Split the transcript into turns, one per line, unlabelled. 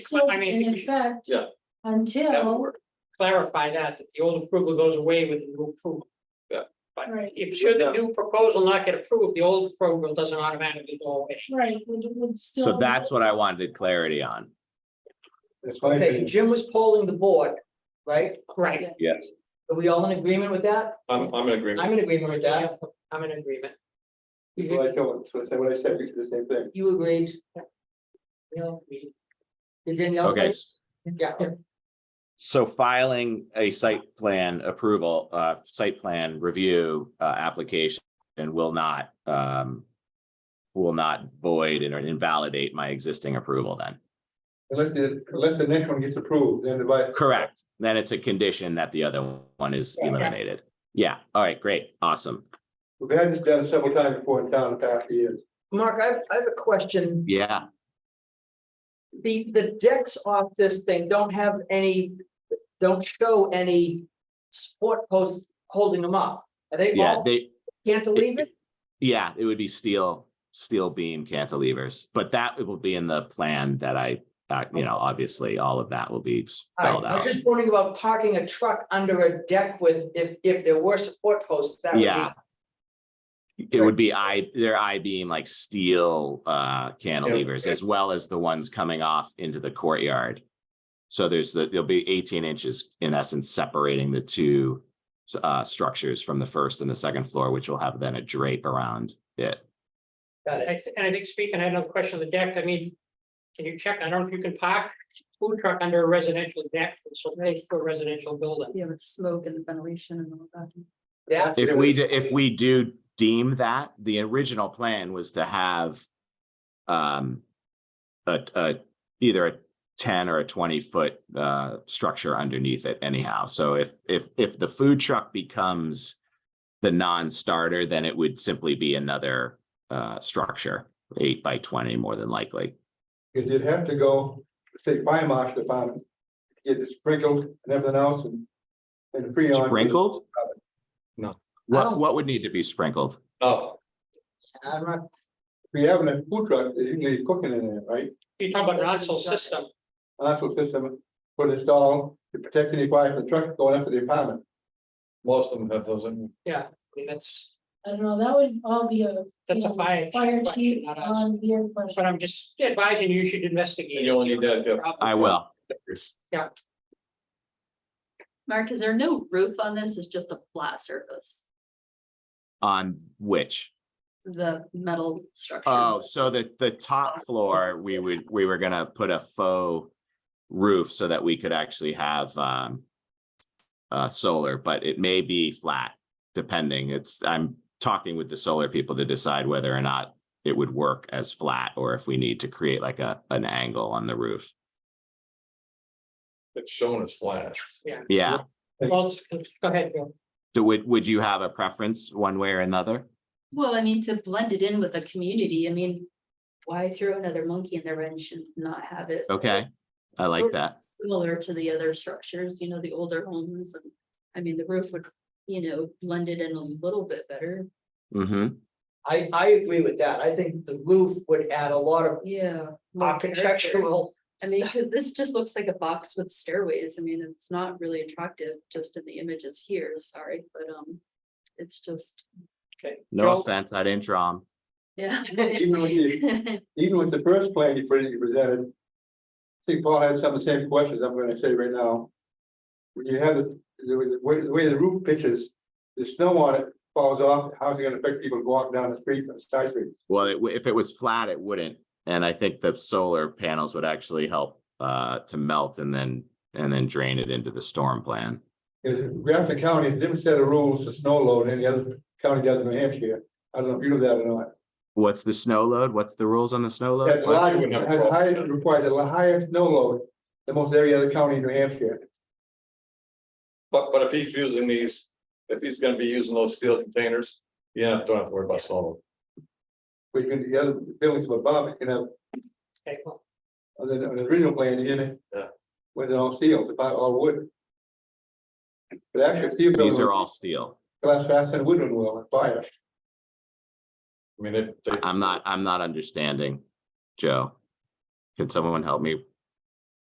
still
I mean,
in
we should-
effect.
Yeah. That would
Until,
work.
clarify that, that the old approval goes away with the new approval.
right,
If should the new proposal not get approved, the old approval doesn't automatically go away.
right, would, would still.
So that's what I wanted clarity on.
That's my
Okay,
opinion.
Jim was polling the board, right?
Right,
Yes.
Are we all in agreement with that?
I'm, I'm in agreement.
I'm in agreement with that.
I'm in agreement.
Well, I told, so I said what I said, we did the same thing.
You agreed.
No, we-
Did Danielle
Okay.
say?
s-
Yeah,
So filing a site plan approval, uh, site plan review, uh, application and will not, um, will not void and invalidate my existing approval then.
Unless the, unless the next one gets approved, then the vice.
Correct. Then it's a condition that the other one is eliminated. Yeah. All right, great. Awesome.
We've had this done several times before in town in the past few years.
Mark, I have, I have a question.
Yeah.
The, the decks off this thing don't have any, don't show any support posts holding them up. Are they
Yeah,
all
they,
cantilevered?
yeah, it would be steel, steel beam cantilevers, but that will be in the plan that I, uh, you know, obviously, all of that will be
All
spelled
right, I was
out.
just wondering about parking a truck under a deck with, if, if there were support posts, that would be.
Yeah. It would be I, their I beam like steel uh cantilevers as well as the ones coming off into the courtyard. So there's the, there'll be eighteen inches in essence separating the two s- uh structures from the first and the second floor, which will have then a drape around it.
Got it.
I th- And I think speaking, I had another question on the deck, I mean, can you check, I don't know if you can park food truck under a residential deck, so next to a residential building.
Yeah, with the smoke and the ventilation and all that.
That's,
If we, do- if we do deem that, the original plan was to have um a, a, either a ten or a twenty-foot uh structure underneath it anyhow. So if, if, if the food truck becomes the non-starter, then it would simply be another uh structure, eight by twenty more than likely.
Because you'd have to go, say, fire marshal department, get it sprinkled and everything else and. And freon.
Sprinkled?
No.
What, what would need to be sprinkled?
Oh,
I'm not,
If you have a food truck, you can leave cooking in there, right?
You talk about an on system,
That's what system, put install, to protect any fire from the truck going after the apartment.
most of them have those in.
I mean, that's,
I don't know, that would all be a.
that's
you
a
know,
fire. chief
Fire
question,
chief
not us.
on your question.
But I'm just advising you should investigate.
And you only need that if you have-
I will.
Mark, is there no roof on this? It's just a flat surface,
On which?
the metal structure.
Oh, so the, the top floor, we would, we were gonna put a faux roof so that we could actually have, um, uh, solar, but it may be flat, depending. It's, I'm talking with the solar people to decide whether or not it would work as flat, or if we need to create like a, an angle on the roof.
It's shown as flat.
Yeah,
Well, it's- go ahead, Bill.
so would, would you have a preference one way or another?
Well, I mean, to blend it in with the community, I mean, why throw another monkey in the wrench and not have it?
Okay, Oh, I like
sort of
that.
Similar to the other structures, you know, the older homes, and, I mean, the roof would, you know, blend it in a little bit better,
hmm
I, I agree with that. I think the roof would add a lot of
yeah. more character.
architectural.
I mean, 'cause this just looks like a box with stairways. I mean, it's not really attractive just in the images here, sorry, but um. It's just,
No
Joe?
offense, I didn't draw 'em.
yeah.
Even with the- Even with the first plan you pre- you presented. I think Paul had some of the same questions I'm gonna say right now. When you have the, the way, the way the roof pitches, the snow on it falls off, how's it gonna affect people walking down the street, on the side street?
Well, it w- if it was flat, it wouldn't, and I think the solar panels would actually help uh to melt and then, and then drain it into the storm plan.
In Grafton County, a different set of rules for snow load than any other county does in New Hampshire. I don't know if you know that or not.
What's the snow load? What's the rules on the snow
That
load? What?
large,
wouldn't have a
has
problem.
higher, requires a higher snow load than most every other county in New Hampshire.
But, but if he's using these, if he's gonna be using those steel containers, yeah, don't have to worry about solar.
We can, the other buildings above it can have
Okay, well,
other than the original plan, you didn't.
Yeah.
With it all sealed, it's about all wood. But actually, steel
These
building,
are all steel.
glass faster than wooden will, and fire.
I mean, it.
I- I'm not, I'm not understanding, Joe. Can someone help me